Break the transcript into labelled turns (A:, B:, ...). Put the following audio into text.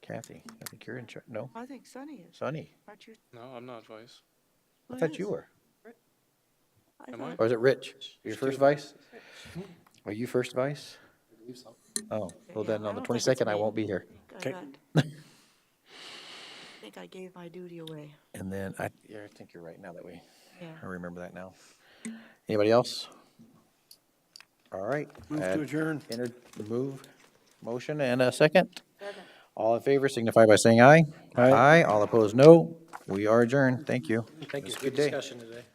A: Kathy, I think you're in charge. No,
B: I think Sunny is,
A: Sunny.
B: aren't you?
C: No, I'm not vice.
A: I
B: Who
A: thought you
B: is?
A: were.
B: I
C: Am
B: thought-
C: I?
A: Or is it Rich? Your first vice? Are you first vice? Oh, well then,
B: Yeah, I
A: on the
B: don't think it's
A: 22nd, I
B: me.
A: won't be here.
B: I
A: Okay.
B: got- I think I gave my duty away,
A: And then I, yeah, I think you're right now that we,
B: yeah.
A: I remember that now. Anybody else? All right.
D: Move to adjourn.
A: Entered the move, motion and a second. All in favor signify by saying aye. Aye. All opposed, no. We are adjourned. Thank you. Thank you. Good day.
E: Discussion today.